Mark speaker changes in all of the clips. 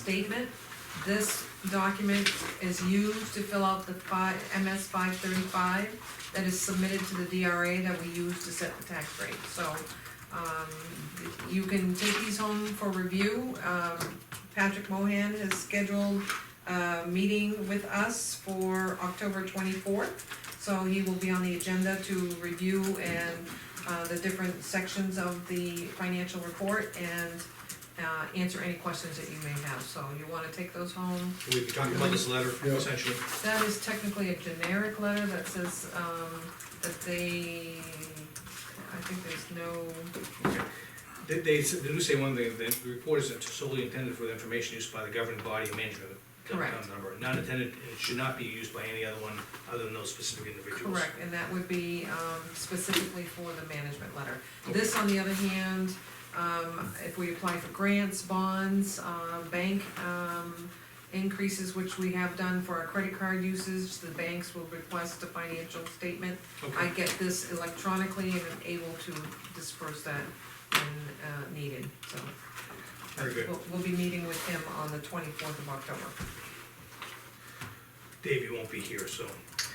Speaker 1: statement. This document is used to fill out the five, MS five thirty-five that is submitted to the DRA that we use to set the tax rate, so, um, you can take these home for review. Um, Patrick Mohan has scheduled a meeting with us for October twenty-fourth, so he will be on the agenda to review and, uh, the different sections of the financial report and, uh, answer any questions that you may have, so you wanna take those home.
Speaker 2: We've been talking about this letter,
Speaker 3: Yeah.
Speaker 2: essentially.
Speaker 1: That is technically a generic letter that says, um, that they, I think there's no,
Speaker 2: They, they s- they do say one thing, that the report is solely intended for the information used by the governing body and manager of the
Speaker 1: Correct.
Speaker 2: town number. Not intended, it should not be used by any other one, other than those specific individuals.
Speaker 1: Correct, and that would be um, specifically for the management letter. This, on the other hand, um, if we apply for grants, bonds, uh, bank um, increases, which we have done for our credit card usage, the banks will request a financial statement. I
Speaker 2: Okay,
Speaker 1: get this electronically and am able to disperse that when uh, needed, so.
Speaker 2: very good.
Speaker 1: We'll, we'll be meeting with him on the twenty-fourth of October.
Speaker 2: Dave, you won't be here, so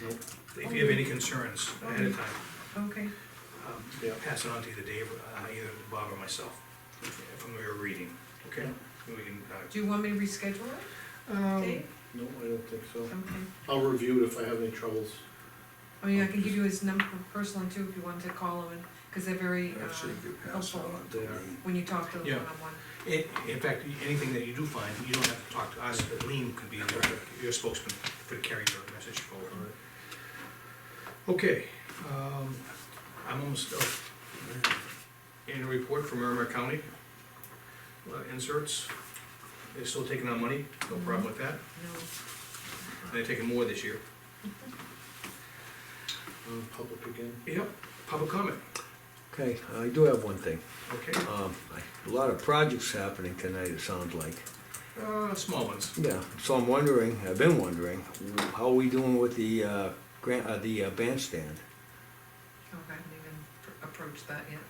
Speaker 3: Nope.
Speaker 2: if you have any concerns
Speaker 1: Oh,
Speaker 2: ahead of time,
Speaker 1: Okay.
Speaker 2: um,
Speaker 3: Yeah.
Speaker 2: pass it on to either Dave, uh, either Bob or myself, from your reading, okay? We can, uh,
Speaker 1: Do you want me to reschedule it,
Speaker 3: Um,
Speaker 1: Dave?
Speaker 3: no, I don't think so.
Speaker 1: Oh, Okay.
Speaker 3: I'll review it if I have any troubles.
Speaker 1: I mean, I can give you his number, personally too, if you wanted to call him, and, cause they're very, uh,
Speaker 4: Actually, you pass that on to me.
Speaker 1: when you talk to them
Speaker 2: Yeah.
Speaker 1: one-on-one.
Speaker 2: in, in fact, anything that you do find, you don't have to talk to us, but Lean could be your, your spokesman for carrying your message forward. Okay, um, I'm almost, done. annual report from Merrimack County. Uh, Inserts, they're still taking on money, no problem with that,
Speaker 1: No,
Speaker 2: and they're taking more this year.
Speaker 3: Um, public again.
Speaker 2: Yep, public comment,
Speaker 5: Okay, I do have one thing.
Speaker 2: okay,
Speaker 5: Um, I- A lot of projects happening tonight, it sounds like.
Speaker 2: uh, small ones.
Speaker 5: Yeah, so I'm wondering, I've been wondering, how are we doing with the uh, grant, uh, the uh, bandstand?
Speaker 1: oh, I haven't even pr- approached that yet.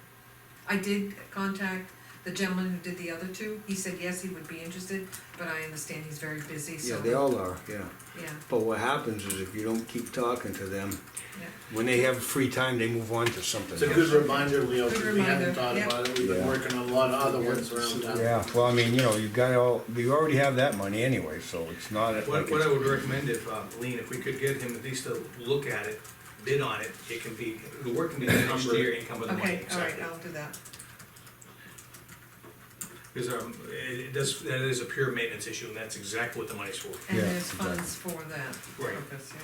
Speaker 1: I did contact the gentleman who did the other two, he said yes, he would be interested, but I understand he's very busy, so.
Speaker 5: Yeah, they all are, yeah.
Speaker 1: Yeah,
Speaker 5: But what happens is if you don't keep talking to them,
Speaker 1: yeah.
Speaker 5: when they have free time, they move on to something
Speaker 3: It's a
Speaker 5: else.
Speaker 3: good reminder, Leo,
Speaker 1: Good
Speaker 3: because we haven't
Speaker 1: reminder,
Speaker 3: thought
Speaker 1: yeah.
Speaker 3: about it, we've been
Speaker 4: Yeah.
Speaker 3: working on a lot of other ones around town.
Speaker 4: Yeah, well, I mean, you know, you got all, you already have that money anyway, so it's not like
Speaker 2: What, what I
Speaker 4: it's.
Speaker 2: would recommend if, uh, Lean, if we could get him at least to look at it, bid on it, it can be, the work can be done next year and come with the money,
Speaker 1: Okay,
Speaker 2: exactly.
Speaker 1: all right, I'll do that,
Speaker 2: Because um, it it does, that is a pure maintenance issue, and that's exactly what the money's for.
Speaker 1: and
Speaker 4: Yeah,
Speaker 1: there's
Speaker 4: exactly.
Speaker 1: funds for that
Speaker 2: Right.
Speaker 1: purpose, yeah.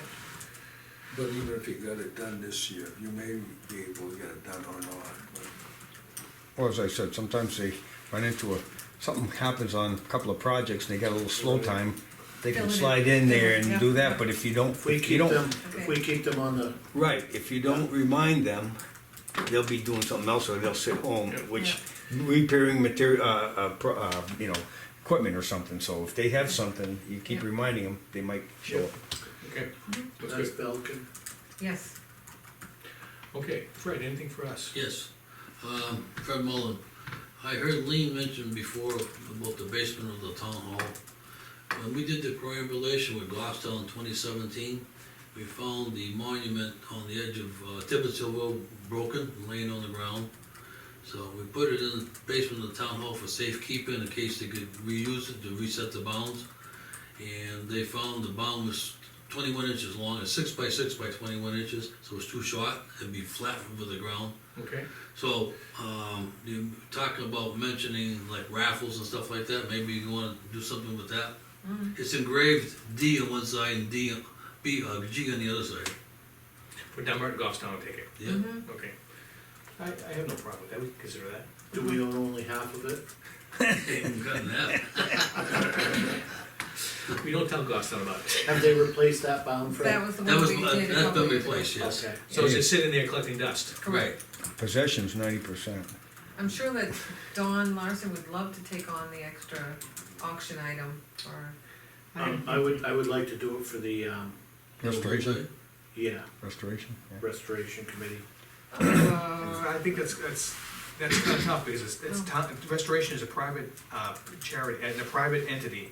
Speaker 4: But even if you got it done this year, you may be able to get it done or not.
Speaker 6: Well, as I said, sometimes they run into a, something happens on a couple of projects, and they got a little slow time. They
Speaker 1: Fill
Speaker 6: can
Speaker 1: it in.
Speaker 6: slide in there
Speaker 1: Yeah.
Speaker 6: and do that, but if you don't,
Speaker 3: If we
Speaker 6: if you
Speaker 3: keep
Speaker 6: don't,
Speaker 3: them, if we keep them on the,
Speaker 5: Right, if you don't remind them, they'll be doing something else or they'll sit home, which
Speaker 6: repairing material, uh, uh, pro- uh, you know, equipment or something, so if they have something, you keep
Speaker 1: Yeah.
Speaker 6: reminding them, they might show up.
Speaker 2: Okay,
Speaker 1: Mm-hmm.
Speaker 2: that's
Speaker 3: that's
Speaker 2: good.
Speaker 3: Belkin.
Speaker 1: Yes,
Speaker 2: Okay, Fred, anything for us?
Speaker 7: Yes, um, Fred Mullen. I heard Lean mention before about the basement of the town hall. When we did the triangulation with Goffstown in twenty seventeen, we found the monument on the edge of uh, Tibbetts Hill Road broken, and laying on the ground. So we put it in the basement of the town hall for safekeeping in case they could reuse it to reset the bounds. And they found the bound was twenty-one inches long, it's six by six by twenty-one inches, so it's too short, it'd be flat over the ground.
Speaker 2: Okay,
Speaker 7: So, um, you talk about mentioning like raffles and stuff like that, maybe you wanna do something with that?
Speaker 1: Mm-hmm.
Speaker 7: It's engraved D on one side and D, on- B, uh, G on the other side,
Speaker 2: for Dunbar and Goffstown, I'll take it,
Speaker 7: yeah?
Speaker 1: Mm-hmm.
Speaker 2: okay. I, I have no problem with that, we can consider that.
Speaker 3: Do we own only half of it?
Speaker 1: Mm-hmm.
Speaker 7: Ain't gotten that.
Speaker 2: We don't tell Goffstown about it.
Speaker 3: Have they replaced that bound frame?
Speaker 1: that was the
Speaker 7: That
Speaker 1: one
Speaker 7: was,
Speaker 1: we did a
Speaker 7: that's
Speaker 1: couple
Speaker 7: been
Speaker 1: years ago.
Speaker 7: replaced, yes.
Speaker 3: Okay.
Speaker 2: So it's just sitting there collecting dust.
Speaker 7: Right,
Speaker 6: Possession's ninety percent.
Speaker 1: I'm sure that Don Larson would love to take on the extra auction item or
Speaker 3: Um, I would, I would like to do it for the, um,
Speaker 6: Restoration,
Speaker 3: yeah,
Speaker 6: restoration, yeah.
Speaker 3: restoration committee.
Speaker 2: Uh, I think that's, that's,
Speaker 1: Oh.
Speaker 2: that's kind of tough, because it's, it's, town- restoration is a private, uh, charity, and a private entity,